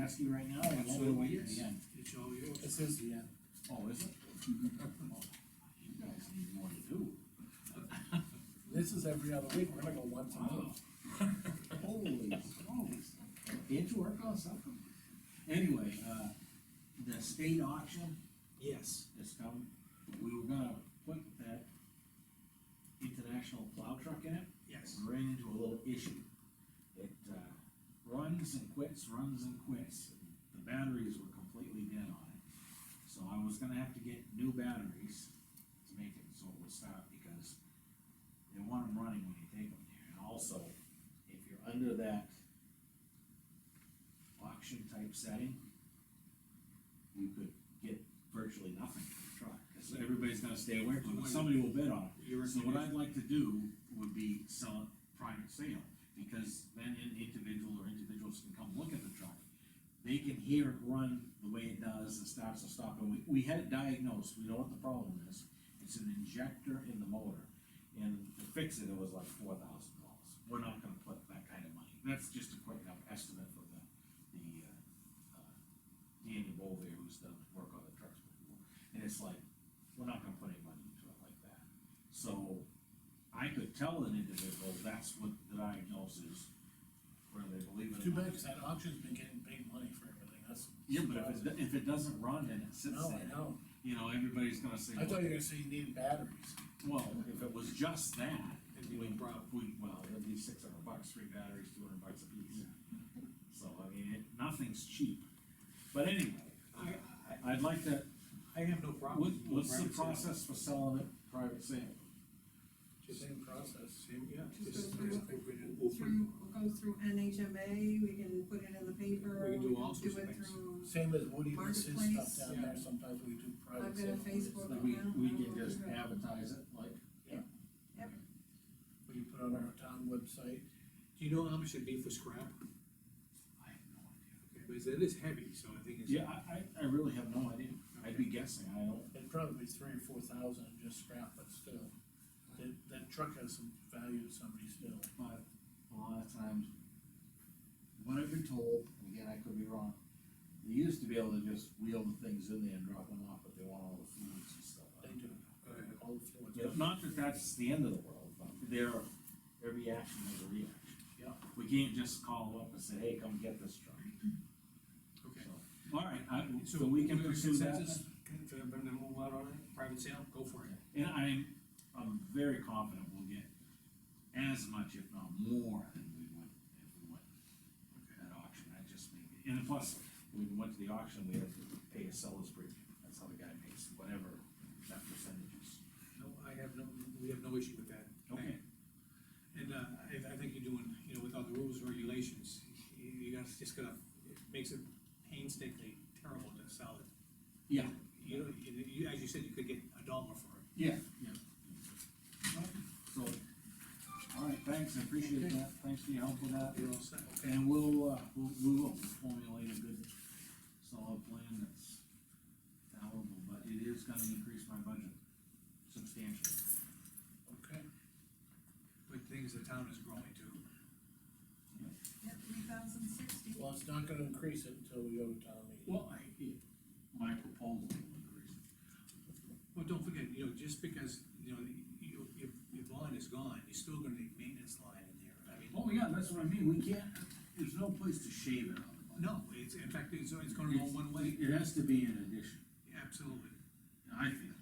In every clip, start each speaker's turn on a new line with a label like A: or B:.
A: ask you right now, I won't
B: Absolutely,
A: wait till
B: yes.
A: the end.
B: It's all yours.
C: This is the, uh,
A: Oh, is it? Oh, You guys need more to do.
C: this is every other week, we're gonna go once a
A: Wow.
C: month.
A: Holy smokes, did you work on something? Anyway, uh, the state auction
B: Yes.
A: is coming, we were gonna put that international plow truck in it,
B: Yes.
A: ran into a little issue. It, uh, runs and quits, runs and quits, the batteries were completely dead on it. So I was gonna have to get new batteries to make it so it would stop, because they want them running when you take them there, and also, if you're under that auction type setting, you could get virtually nothing for the truck, cause everybody's gonna stay away from it, somebody will bid on it.
B: You're-
A: So what I'd like to do would be sell it private sale, because then an individual or individuals can come look at the truck. They can hear it run the way it does and starts and stops, and we, we had it diagnosed, we know what the problem is. It's an injector in the motor, and to fix it, it was like four thousand dollars. We're not gonna put that kind of money, that's just a quick enough estimate for the, the, uh, uh, Danny Bovee, who's done work on the trucks before, and it's like, we're not gonna put any money into it like that. So, I could tell an individual that's what the diagnosis, whether they believe it
C: Too
A: or not.
C: bad, cause that auction's been getting big money for everything, that's.
A: Yeah, but if it, if it doesn't run and it sits
C: No, I
A: there,
C: know,
A: you know, everybody's gonna say,
C: I thought you were gonna say you needed batteries.
A: well, if it was just that,
B: It'd be
A: we,
B: no problem.
A: we, well, it'd be six hundred bucks, three batteries, two hundred bucks a piece. So, I mean, it, nothing's cheap, but anyway,
B: I,
A: I'd like to,
B: I have no problem.
A: what,
B: with
A: what's the
B: private sale.
A: process for selling it private sale?
C: Same process.
B: Same, yeah.
D: Just
B: just-
D: go through
B: just
D: it.
B: think we did- we'll put-
D: through, goes through NHMA, we can put it in the paper.
B: We can do all
D: do
B: sorts of
D: it
B: things.
D: through.
C: Same as Woody with his
D: Marketplace.
C: stuff down there, sometimes we do private.
D: I've got a
C: sale.
D: Facebook.
A: That we, we can just advertise it, like,
C: We can put on our town website,
B: Do you know how much it'd be for scrap?
A: I have no idea.
B: Okay, Because it is heavy, so I think it's.
A: Yeah, I, I, I really have no idea, I'd be guessing, I don't,
C: it'd probably be three or four thousand just scrap, but still. That, that truck has some value to somebody still.
A: but a lot of times, what I've been told, and again, I could be wrong, they used to be able to just wheel the things in there and drop them off, but they want all the fluids and stuff.
C: They do,
B: Go ahead.
C: all the fluids.
A: You know, Not that that's the end of the world, but there, every action is a reaction.
C: Yeah.
A: We can't just call them up and say, hey, come get this truck,
B: Okay.
A: so, all right, I, so we can pursue that.
B: Consensus, can, can everybody move out on it, private sale, go for it.
A: And I'm, I'm very confident we'll get as much, if not more, than we would if we went at auction, that just made me, and plus, when we went to the auction, we had to pay a seller's premium, that's how the guy makes whatever that percentage is.
B: No, I have no, we have no issue with that.
A: Okay.
B: And, uh, I, I think you're doing, you know, with all the rules, and regulations, you, you guys just gotta, it makes it painstakingly terrible to sell it.
A: Yeah,
B: You know, you, you, as you said, you could get a dollar for it.
A: yeah, yeah. So, all right, thanks, I appreciate that, thanks for your help with that.
B: You're all set.
A: And we'll, uh, we'll, we will formulate a good solid plan that's palatable, but it is gonna increase my budget substantially.
C: Okay,
B: But things, the town is growing too.
D: three thousand sixty.
C: well, it's not gonna increase it until we go to town meeting.
A: Well, I, it- my proposal will increase.
B: Well, don't forget, you know, just because, you know, your, your, your lawn is gone, you're still gonna need maintenance line in there, I mean.
A: Oh, yeah, that's what I mean, we can't, there's no place to shave it on the budget.
B: No, it's, in fact, it's, it's gonna go one way,
A: It has to be an addition,
B: absolutely.
A: I think.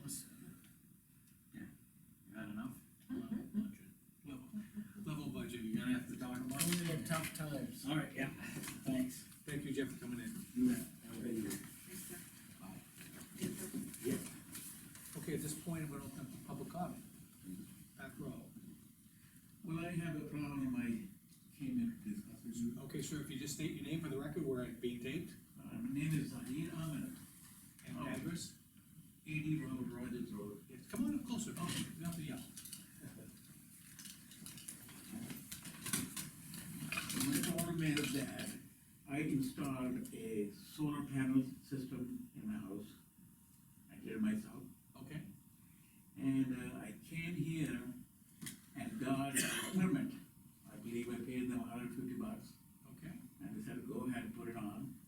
A: Yeah, you had enough?
B: Level, level budget,
A: You're gonna have to talk about
C: Only
A: it.
C: in tough times.
A: All right, yeah, thanks.
B: Thank you, Jeff, for coming in.
A: You bet. Have a good evening. Bye. Yeah.
B: Okay, at this point, I'm gonna open up the public comment. Back row.
E: Well, I have a problem, I came in to discuss with you.
B: Okay, sir, if you just state your name for the record, where it's being taped,
E: Uh, my name is Zahir Ahmed,
B: and
E: Oh.
B: address.
E: eighty Road, Rogers Road.
B: Yes, Come on up closer, oh, nothing else.
E: My problem is that I installed a solar panel system in my house. I did it myself,
B: Okay,
E: and uh, I came here and got a permit. I believe I paid them hundred fifty